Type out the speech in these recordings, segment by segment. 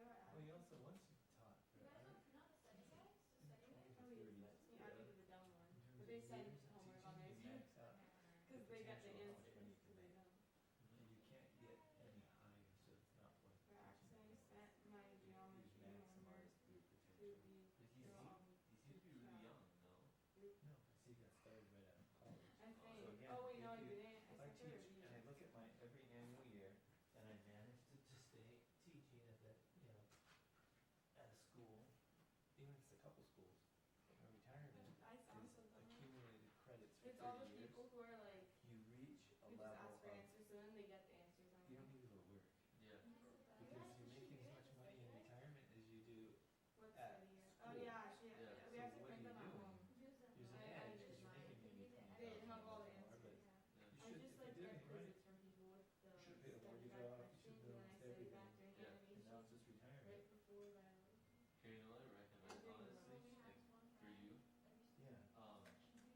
That's the ones you taught. Oh, Yeah, I think it's a dumb one, but they send homework on their students, cause they got the answers, they don't. And you can't get any higher, so it's not worth Perhaps I teaching. sent my Use geometry homework maximize your to potential. the, But they're he's, all, he seems to be really young, no? No, because he got started right out of college. I think, again, oh wait, no, if you you- didn't, I sent her a If I teach, and I video. look at my every annual year, and I manage to, to stay teaching at that, you know, at a school, even if it's a couple schools, my retirement I is also, don't know. accumulated credits for it's all the thirty years. people who are like, You reach a who just level ask for of, answers, and then they get the answers on you don't it. need to go work, Yeah. because you make as much money in retirement as you do What's at the year? school. Oh, yeah, she, Yeah, we have so to print what do them you at do? home. There's an I- I edge, did mine. because you're making maybe twenty I thousand didn't have all dollars the an hour, answers, but yeah. I you should, just if like you're doing get it right, visits from people with the Should be study able to guide get off, you should questions, and be able I to study do back during Yeah. and animation, now it's just retirement. right before that. Here, you know, I recommend honestly, like, for you, Yeah. um, SMC has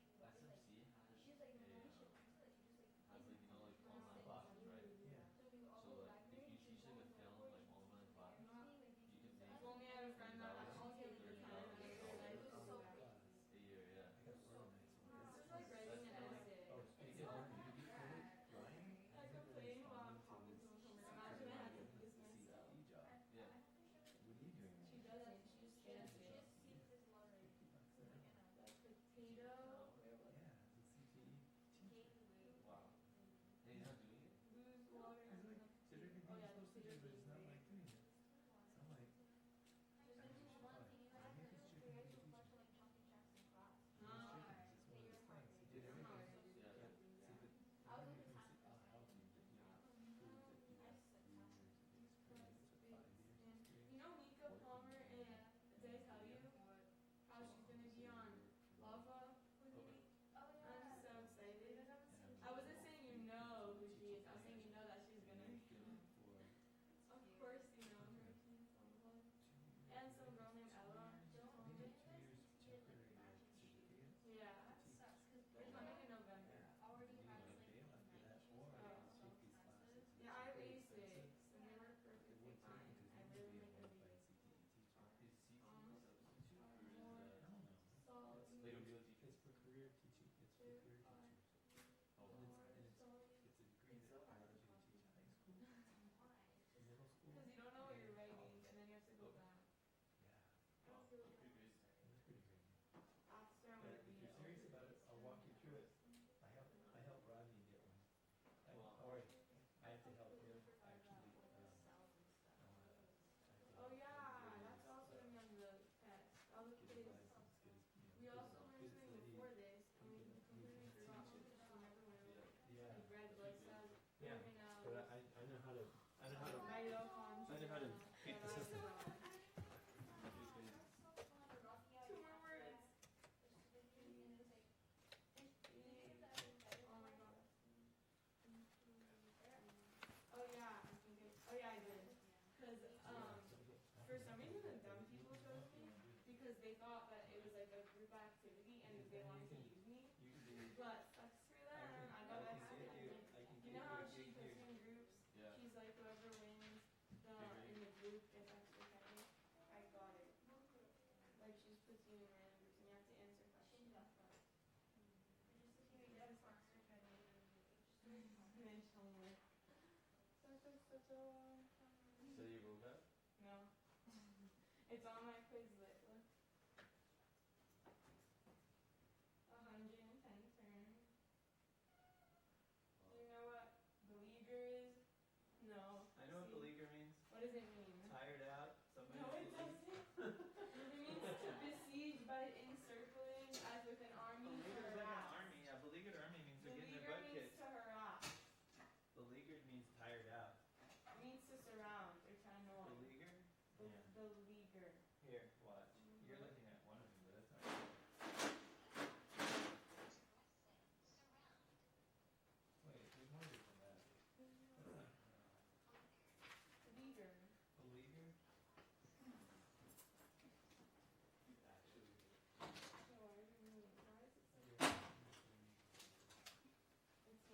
a, um, has like, you know, like online classes, right? So like, if you teach like a film, like online class, you can make If only I had a friend that I $30, all the other $30 time, and I realized it was so big. Yeah. I a year, yeah. got organized. It's like writing an essay. Oh, You it's can, all you can create Ryan? I complain while I'm talking to someone, imagine I had to do this myself. CTE job, what yeah, are you doing? She does it, she just stands it. Like potato, where was it? Yeah, it's a CTE teacher. wow. And he's not doing it? Lose water. I was like, Oh, did everything yeah, you're supposed to do, potato. but it's not like doing it. So I'm like, did everything. Yeah. see, but I was the in thing the top is, I'll help you, but you have to prove that you have three years of experience or five years of experience. You know Mika Palmer and did I tell you how she's gonna be on Lava with me? I'm so excited. I wasn't saying you know who she is. I was saying you know that she's gonna. You've been for Of course you know her. she's on Lava. two And years, some girl named Ella. Maybe two years of temporary work Yeah. certificate. We're coming in November. You can get bail after that, or you can take these classes. which Yeah, I are have very A expensive. six and they work It perfectly would take fine. because I you need to really be like enrolled the by a beat. CTE teacher. Is CT a substitute or is I it? don't know. So. It's- They don't Two, five. Because It's so hard. you don't know what you're writing and then you have to It's for career teaching, it's for career teachers. And it's, and it's, it's a degree that allows you to teach high school, middle school. do it? Oh, go back. Yeah, wow, pretty great. that's pretty great. After I'm But gonna if be. you're serious about it, I'll walk you through it. I help, I help Rodney get one. I, Wow. or I have to help him actually, um, Oh yeah, that's also in on the test. All the Get his kids. license, get his, you We know. also learned his something lady- before this and we completely forgot what we remember when we were like Yeah, red blood cells yeah, coming out. but I, I know how to, I know how to. mitochondria. I know how to pick the system. Tumor words. Oh my god. Oh yeah, I think it, oh yeah, I did. Cause um, for some reason the dumb people chose me because they thought that it was like a group activity and they wanted to use me. You can do, But fuck screw I them, can, I I got can that save you, happen. I can You give know you how a she gig puts here. me in groups? Yeah, She's like whoever wins the in the group gets extra credit. I got it. Like she just puts you in random groups and you have to answer questions. And then she'll like, "Oh, such a such a so you wrote that? No. it's on my Mm-hmm. Hmm.